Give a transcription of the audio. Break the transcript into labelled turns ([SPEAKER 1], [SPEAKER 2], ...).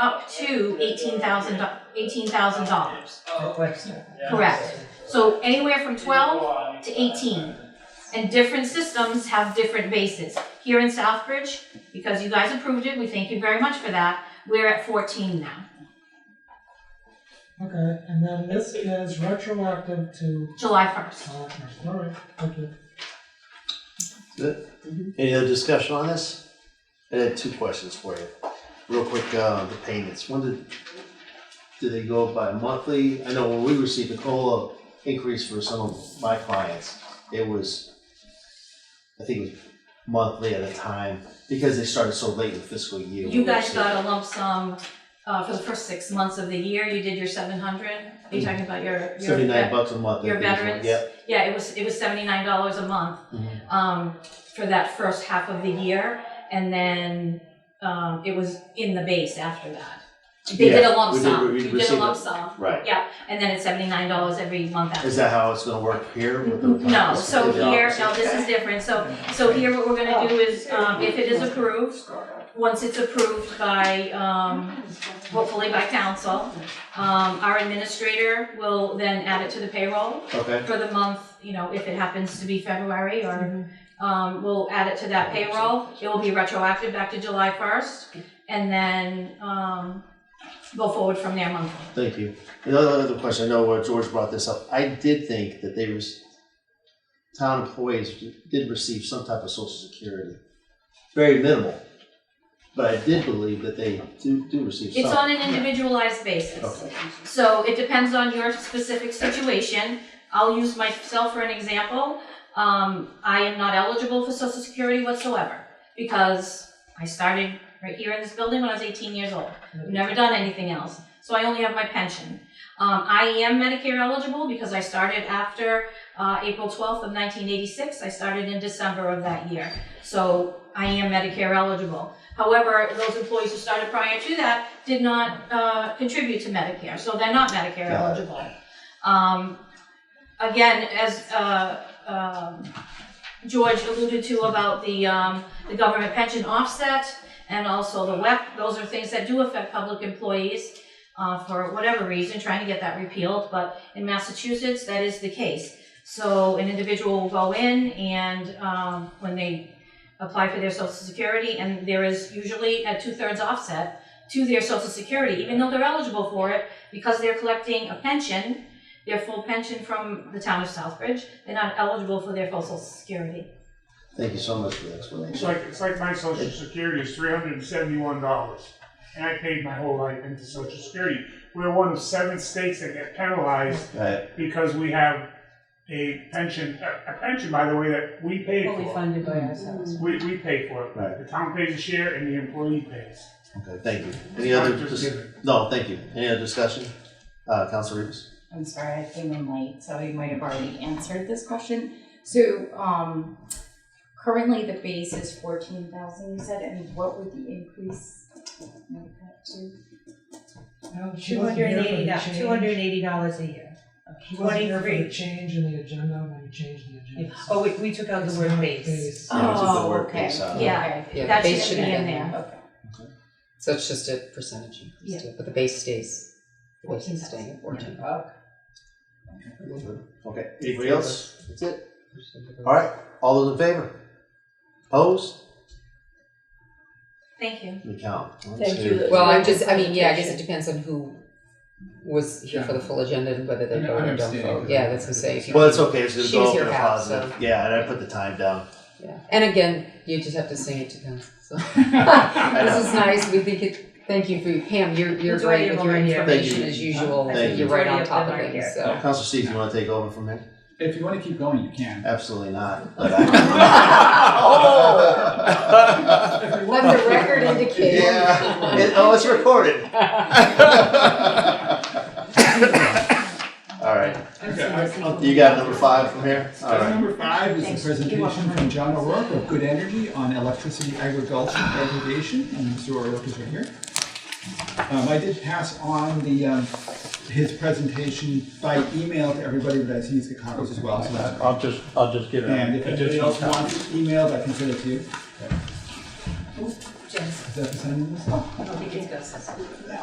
[SPEAKER 1] up to eighteen thousand, eighteen thousand dollars.
[SPEAKER 2] Oh,
[SPEAKER 1] Correct. So anywhere from twelve to 18. And different systems have different bases. Here in Southbridge, because you guys approved it, we thank you very much for that, we're at fourteen now,
[SPEAKER 2] Okay, and then this is retroactive to,
[SPEAKER 1] July first.
[SPEAKER 2] uh, all right, thank you.
[SPEAKER 3] Any other discussion on this? I had two questions for you. Real quick, uh, the payments, when did, did they go up by monthly? I know when we received the COLA increase for some of my clients, it was, I think it was monthly at a time, because they started so late in the fiscal year.
[SPEAKER 1] You guys got a lump sum, uh, for the first six months of the year, you did your seven hundred, are you talking about your, your?
[SPEAKER 3] Seventy-nine bucks a month. I
[SPEAKER 1] your
[SPEAKER 3] think it was.
[SPEAKER 1] veterans?
[SPEAKER 3] Yep.
[SPEAKER 1] Yeah, it was, it was seventy-nine dollars a month,
[SPEAKER 3] Mhm.
[SPEAKER 1] um, for that first half of the year, and then, um, it was in the base after that. They did a
[SPEAKER 3] Yeah,
[SPEAKER 1] lump
[SPEAKER 3] we did-
[SPEAKER 1] sum,
[SPEAKER 3] we
[SPEAKER 1] you did a
[SPEAKER 3] received
[SPEAKER 1] lump
[SPEAKER 3] it.
[SPEAKER 1] sum,
[SPEAKER 3] Right.
[SPEAKER 1] and then it's seventy-nine dollars every month after.
[SPEAKER 3] Is that how it's gonna work here with the?
[SPEAKER 1] No,
[SPEAKER 3] it's
[SPEAKER 1] so
[SPEAKER 3] the
[SPEAKER 1] here,
[SPEAKER 3] opposite.
[SPEAKER 1] no, this is different, so, so here what we're gonna do is, um, if it is approved, once it's approved by, um, hopefully by council, um, our administrator will then add it to the payroll
[SPEAKER 3] Okay,
[SPEAKER 1] for the month, you know, if it happens to be February or, um, we'll add it to that payroll. It will be retroactive back to July first, and then, um, go forward from there monthly.
[SPEAKER 3] thank you. Another, another question, I know uh, George brought this up, I did think that they was, town employees did receive some type of social security, very minimal. But I did believe that they do, do receive some.
[SPEAKER 1] It's on an individualized basis.
[SPEAKER 3] Okay,
[SPEAKER 1] So it depends on your specific situation. I'll use myself for an example. Um, I am not eligible for social security whatsoever because I started right here in this building when I was eighteen years old. I've never done anything else, so I only have my pension. Um, I am Medicare eligible because I started after, uh, April twelfth of nineteen eighty-six. I started in December of that year. So I am Medicare eligible. However, those employees who started prior to that did not, uh, contribute to Medicare, so they're not Medicare
[SPEAKER 3] Got it.
[SPEAKER 1] eligible. Um, again, as, uh, um, George alluded to about the, um, the government pension offset and also the WEP, those are things that do affect public employees, uh, for whatever reason, trying to get that repealed, but in Massachusetts, that is the case. So an individual will go in and, um, when they apply for their social security, and there is usually a two-thirds offset to their social security, even though they're eligible for it, because they're collecting a pension, their full pension from the town of Southbridge, they're not eligible for their full social security.
[SPEAKER 3] thank you so much for the
[SPEAKER 4] It's
[SPEAKER 3] explanation.
[SPEAKER 4] like, it's like my social security is three hundred and seventy-one dollars, and I paid my whole life into social security. We're one of seven states that get penalized
[SPEAKER 3] Right,
[SPEAKER 4] because we have a pension, a, a pension, by the way, that we paid
[SPEAKER 5] Fully
[SPEAKER 4] for.
[SPEAKER 5] funded by ourselves.
[SPEAKER 4] We, we pay for
[SPEAKER 3] Right.
[SPEAKER 4] it. The town pays a share and the employee pays.
[SPEAKER 3] okay, thank you.
[SPEAKER 4] It's
[SPEAKER 3] Any
[SPEAKER 4] not
[SPEAKER 3] other,
[SPEAKER 4] just
[SPEAKER 3] dis-
[SPEAKER 4] given.
[SPEAKER 3] no, thank you. Any other discussion? Uh, Council Reeves?
[SPEAKER 5] I'm sorry, I came in late, so you might have already answered this question. So, um, currently the base is fourteen thousand, you said, and what would the increase make that to?
[SPEAKER 2] She
[SPEAKER 6] Two
[SPEAKER 2] wasn't
[SPEAKER 6] hundred
[SPEAKER 2] here for
[SPEAKER 6] and eighty
[SPEAKER 2] the
[SPEAKER 6] dollars,
[SPEAKER 2] change.
[SPEAKER 6] two hundred and eighty dollars a year.
[SPEAKER 2] She wasn't here for the
[SPEAKER 6] 23.
[SPEAKER 2] change in the agenda when we changed the agenda.
[SPEAKER 6] Oh, we, we took out the
[SPEAKER 2] It's
[SPEAKER 6] word
[SPEAKER 2] not
[SPEAKER 6] base.
[SPEAKER 2] base.
[SPEAKER 3] Yeah, it's a
[SPEAKER 5] Oh,
[SPEAKER 3] lower
[SPEAKER 5] okay.
[SPEAKER 3] base, uh,
[SPEAKER 1] Yeah,
[SPEAKER 5] Okay.
[SPEAKER 7] Yeah,
[SPEAKER 1] That
[SPEAKER 7] base
[SPEAKER 1] shouldn't
[SPEAKER 7] should
[SPEAKER 1] be
[SPEAKER 7] have
[SPEAKER 1] in
[SPEAKER 7] been-
[SPEAKER 1] there.
[SPEAKER 5] Okay.
[SPEAKER 7] So it's just a percentage increase, to it, but the base stays, the base is staying at fourteen. Oh,
[SPEAKER 3] Okay, anybody else? That's it? All right, all those in favor? Opposed?
[SPEAKER 1] Thank you.
[SPEAKER 3] We count. One,
[SPEAKER 6] Thank
[SPEAKER 3] two,
[SPEAKER 6] you.
[SPEAKER 7] Well, I'm just, I mean, yeah, I guess it depends on who was here for the full agenda and whether they
[SPEAKER 8] Yeah.
[SPEAKER 7] voted or don't
[SPEAKER 8] Understanding.
[SPEAKER 7] vote. Yeah, that's what I'm saying.
[SPEAKER 3] Well, it's okay. It's gonna
[SPEAKER 7] She
[SPEAKER 3] go
[SPEAKER 7] was
[SPEAKER 3] up
[SPEAKER 7] here
[SPEAKER 3] in a
[SPEAKER 7] half,
[SPEAKER 3] positive.
[SPEAKER 7] so-
[SPEAKER 3] Yeah, and I put the time down.
[SPEAKER 7] Yeah. And again, you just have to sing it to council, so.
[SPEAKER 3] know.
[SPEAKER 7] This is nice, we think it, thank you for, Pam, you're, you're
[SPEAKER 6] Majority
[SPEAKER 7] right
[SPEAKER 6] of
[SPEAKER 7] with
[SPEAKER 6] them
[SPEAKER 7] your
[SPEAKER 6] are here.
[SPEAKER 7] information
[SPEAKER 3] Thank you.
[SPEAKER 7] as usual, I
[SPEAKER 3] Thank
[SPEAKER 7] think
[SPEAKER 3] you.
[SPEAKER 7] you're right on
[SPEAKER 6] Majority of
[SPEAKER 7] top of
[SPEAKER 6] them are here.
[SPEAKER 7] things, so.
[SPEAKER 3] Council Steve, you want to take over from here?
[SPEAKER 8] If you want to keep going, you can.
[SPEAKER 3] Absolutely not. But
[SPEAKER 7] Oh.
[SPEAKER 3] I.
[SPEAKER 7] Let the record indicate.
[SPEAKER 3] yeah. It, oh, it's recorded. All right.
[SPEAKER 8] Okay, I- I'll-
[SPEAKER 3] You got number five from here. All
[SPEAKER 8] Item
[SPEAKER 3] right.
[SPEAKER 8] number five
[SPEAKER 6] Thanks.
[SPEAKER 8] is a
[SPEAKER 6] You're welcome.
[SPEAKER 8] presentation from John O'Rourke of Good Energy on electricity aggregation, aggregation, and Mr. O'Rourke is right here. Um, I did pass on the, um, his presentation by email to everybody, but I see he's got copies as well, so that's.
[SPEAKER 9] I'll just, I'll just give it.
[SPEAKER 8] And if anybody else wants it emailed, I can send it to you.
[SPEAKER 5] Just
[SPEAKER 10] Is that the same one?
[SPEAKER 8] I think it's Gus's.